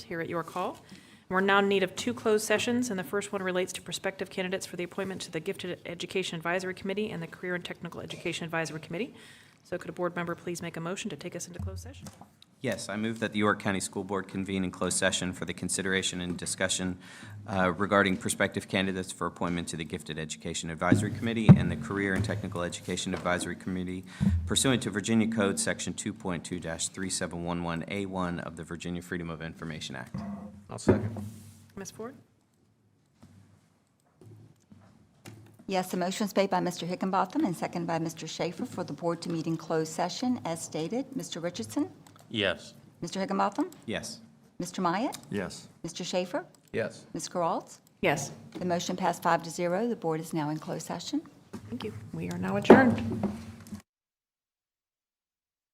here at your call. We're now in need of two closed sessions, and the first one relates to prospective candidates for the appointment to the Gifted Education Advisory Committee and the Career and Technical Education Advisory Committee. So could a board member please make a motion to take us into closed session? Yes, I move that the York County School Board convene in closed session for the consideration and discussion uh, regarding prospective candidates for appointment to the Gifted Education Advisory Committee and the Career and Technical Education Advisory Committee pursuant to Virginia Code Section 2.2-3711A1 of the Virginia Freedom of Information Act. I'll second. Ms. Ford? Yes, the motion is made by Mr. Hickenbotham and seconded by Mr. Schaefer for the board to meet in closed session as stated. Mr. Richardson? Yes. Mr. Hickenbotham? Yes. Mr. Myatt? Yes. Mr. Schaefer? Yes. Ms. Geralds? Yes. The motion passed five to zero. The board is now in closed session. Thank you. We are now adjourned.